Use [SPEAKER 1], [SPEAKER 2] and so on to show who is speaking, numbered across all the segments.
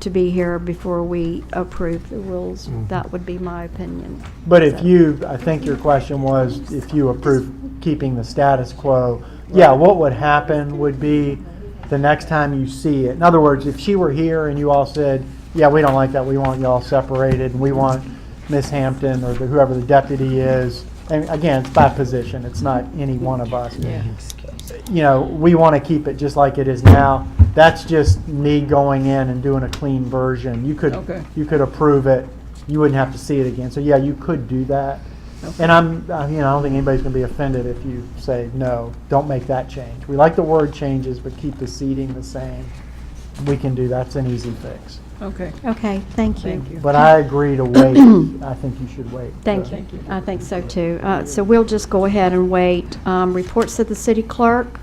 [SPEAKER 1] to be here before we approve the rules. That would be my opinion.
[SPEAKER 2] Mm-hmm. But if
[SPEAKER 1] So-
[SPEAKER 2] you, I think your question was if you approve keeping the status quo, yeah, what would happen would be the next time you see it. In other words, if she were here and you all said, yeah, we don't like that, we want y'all separated, and we want Miss Hampton or the- whoever the deputy is, and again, it's by position, it's not any one of us. You know, we want to keep it just like it is now. That's just me going in and doing a clean version. You could,
[SPEAKER 3] Okay.
[SPEAKER 2] you could approve it, you wouldn't have to see it again. So yeah, you could do that. And I'm, I- you know, I don't think anybody's gonna be offended if you say, no, don't make that change. We like the word changes, but keep the seating the same. We can do, that's an easy fix.
[SPEAKER 3] Okay,
[SPEAKER 1] Okay, thank you.
[SPEAKER 3] thank you.
[SPEAKER 2] But I agree to wait, I think you should wait.
[SPEAKER 1] Thank
[SPEAKER 2] So-
[SPEAKER 1] you. I think so too. Uh, So we'll just go ahead and wait. Um, Reports to the city clerk,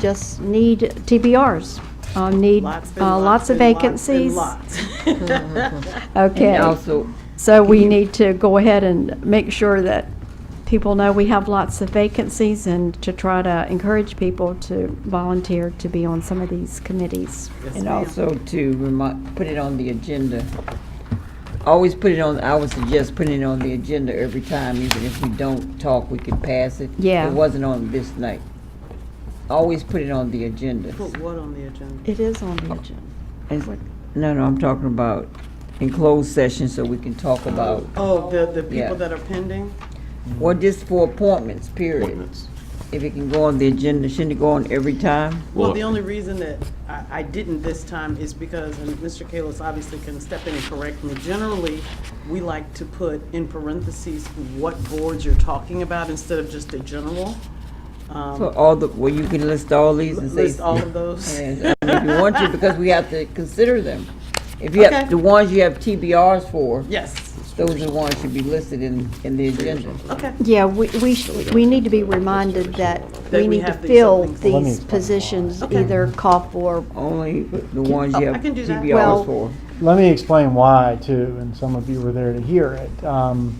[SPEAKER 1] just need TBRs, Uh, need
[SPEAKER 4] Lots been
[SPEAKER 1] uh, lots of
[SPEAKER 4] been lots
[SPEAKER 1] vacancies.
[SPEAKER 4] been Lots.
[SPEAKER 1] Okay.
[SPEAKER 3] And also,
[SPEAKER 1] So we need to go ahead and make sure that people know we have lots of vacancies and to try to encourage people to volunteer to be on some of these committees.
[SPEAKER 3] and also to remind, put it on the agenda. Always put it on, I would suggest putting it on the agenda every time, even if we don't talk, we could pass it.
[SPEAKER 1] Yeah.
[SPEAKER 3] It wasn't on this night. Always put it on the agenda.
[SPEAKER 4] Put what on the agenda?
[SPEAKER 1] It is on the agenda.
[SPEAKER 3] It's- No, no, I'm talking about in closed session so we can talk about,
[SPEAKER 4] Oh, the, the
[SPEAKER 3] Yeah.
[SPEAKER 4] people that are pending?
[SPEAKER 3] well, just for appointments, period. If it can go on the agenda, shouldn't it go on every time?
[SPEAKER 4] Well, the only reason that I, I didn't this time is because, and Mr. Kalis obviously can step in and correct me. Generally, we like to put in parentheses what boards you're talking about instead of just a general. Um,
[SPEAKER 3] For all the, well, you can list all these and say.
[SPEAKER 4] List all of those.
[SPEAKER 3] And I mean, if you want to, because we have to consider them. If you
[SPEAKER 4] Okay.
[SPEAKER 3] have, the ones you have TBRs for,
[SPEAKER 4] Yes,
[SPEAKER 3] those are the ones should be listed in, in the agenda.
[SPEAKER 4] okay.
[SPEAKER 1] Yeah, we, we, sh- we need to be reminded that
[SPEAKER 4] That
[SPEAKER 1] we
[SPEAKER 4] we
[SPEAKER 1] need to
[SPEAKER 4] have these
[SPEAKER 1] fill
[SPEAKER 4] openings.
[SPEAKER 2] Let me
[SPEAKER 1] these
[SPEAKER 2] explain why.
[SPEAKER 1] positions,
[SPEAKER 4] Okay.
[SPEAKER 1] either call for,
[SPEAKER 3] Only the ones you
[SPEAKER 4] Oh,
[SPEAKER 3] have
[SPEAKER 4] I can do that.
[SPEAKER 1] Well-
[SPEAKER 3] TBRs for.
[SPEAKER 2] Let me explain why too, and some of you were there to hear it. Um,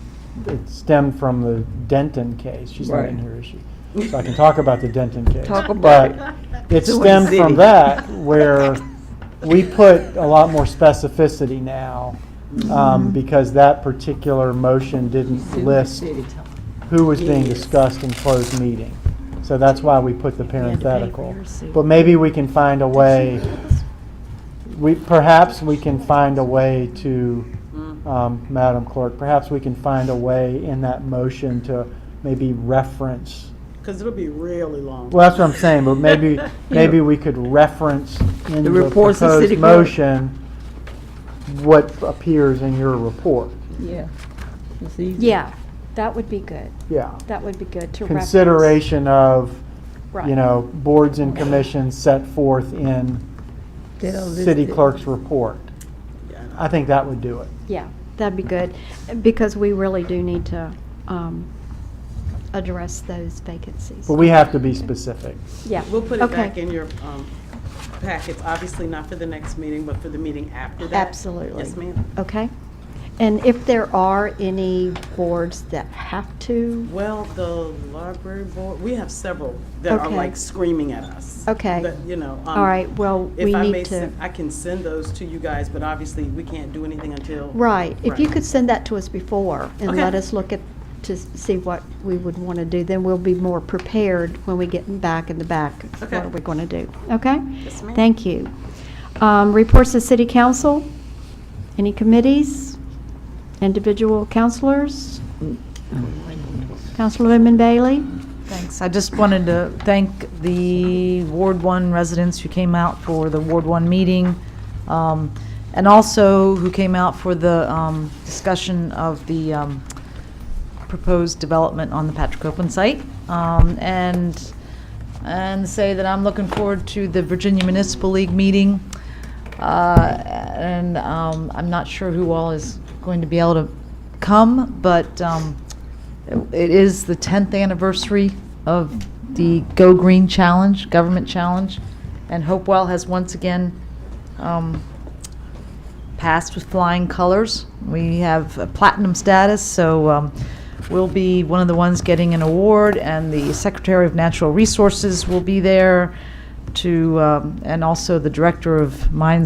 [SPEAKER 2] It stemmed from the Denton case. She's not in
[SPEAKER 3] Right.
[SPEAKER 2] here, is she? So I can talk about the Denton case.
[SPEAKER 3] Talk about it.
[SPEAKER 2] But it
[SPEAKER 3] Doing
[SPEAKER 2] stemmed from
[SPEAKER 3] city.
[SPEAKER 2] that where we put a lot more specificity now
[SPEAKER 3] Mm-hmm.
[SPEAKER 2] um, because that particular motion didn't list who was being discussed in closed meeting. So that's why we put
[SPEAKER 1] had to
[SPEAKER 2] the
[SPEAKER 1] pay for
[SPEAKER 2] parenthetical.
[SPEAKER 1] your seat.
[SPEAKER 2] But maybe we can find a way, we, perhaps we can find a way to, um, Madam Clerk, perhaps we can find a way in that motion to maybe reference.
[SPEAKER 4] Because it'll be really long.
[SPEAKER 2] Well, that's what I'm saying, but maybe, maybe we could reference in
[SPEAKER 3] The
[SPEAKER 2] the
[SPEAKER 3] reports of city
[SPEAKER 2] proposed
[SPEAKER 3] clerk.
[SPEAKER 2] motion what appears in your report.
[SPEAKER 3] Yeah. It's easy.
[SPEAKER 1] yeah, that would be good.
[SPEAKER 2] Yeah.
[SPEAKER 1] That would be good to reference.
[SPEAKER 2] Consideration of you
[SPEAKER 1] Right.
[SPEAKER 2] know, boards and commissions set forth in
[SPEAKER 3] They're listed.
[SPEAKER 2] city clerk's report.
[SPEAKER 4] Yeah.
[SPEAKER 2] I think that would do it.
[SPEAKER 1] Yeah, that'd be good, because we really do need to um, address those vacancies.
[SPEAKER 2] But we have to be specific.
[SPEAKER 1] Yeah.
[SPEAKER 4] We'll put it
[SPEAKER 1] okay.
[SPEAKER 4] back in your um, packets, obviously not for the next meeting, but for the meeting after that.
[SPEAKER 1] Absolutely.
[SPEAKER 4] Yes, ma'am.
[SPEAKER 1] Okay. And if there are any boards that have to,
[SPEAKER 4] Well, the library board, we have several that are
[SPEAKER 1] Okay.
[SPEAKER 4] like screaming at us.
[SPEAKER 1] Okay.
[SPEAKER 4] That, you know. um,
[SPEAKER 1] all right, well, we
[SPEAKER 4] If I may,
[SPEAKER 1] need to.
[SPEAKER 4] sen- I can send those to you guys, but obviously, we can't do anything until.
[SPEAKER 1] Right, if you
[SPEAKER 4] Right.
[SPEAKER 1] could send that to us before and
[SPEAKER 4] Okay.
[SPEAKER 1] let us look at, to s- see what we would want to do, then we'll be more prepared when we get back in the back. of
[SPEAKER 4] Okay.
[SPEAKER 1] What are we going to do, okay?
[SPEAKER 4] Yes, ma'am.
[SPEAKER 1] Thank you. Um, Reports to City Council, any committees, individual counselors? Counselor Lemon Bailey?
[SPEAKER 5] Thanks. I just wanted to thank the Ward 1 residents who came out for the Ward 1 meeting, um, and also who came out for the um, discussion of the um, proposed development on the Patrick Copeland site. Um, And, and say that I'm looking forward to the Virginia Municipal League meeting. Uh, And um, I'm not sure who all is going to be able to come, but um, it is the 10th anniversary of the Go Green Challenge, government challenge, and Hopewell has once again um, passed with flying colors. We have a platinum status, so um, we'll be one of the ones getting an award, and the Secretary of Natural Resources will be there to, um, and also the Director of Mines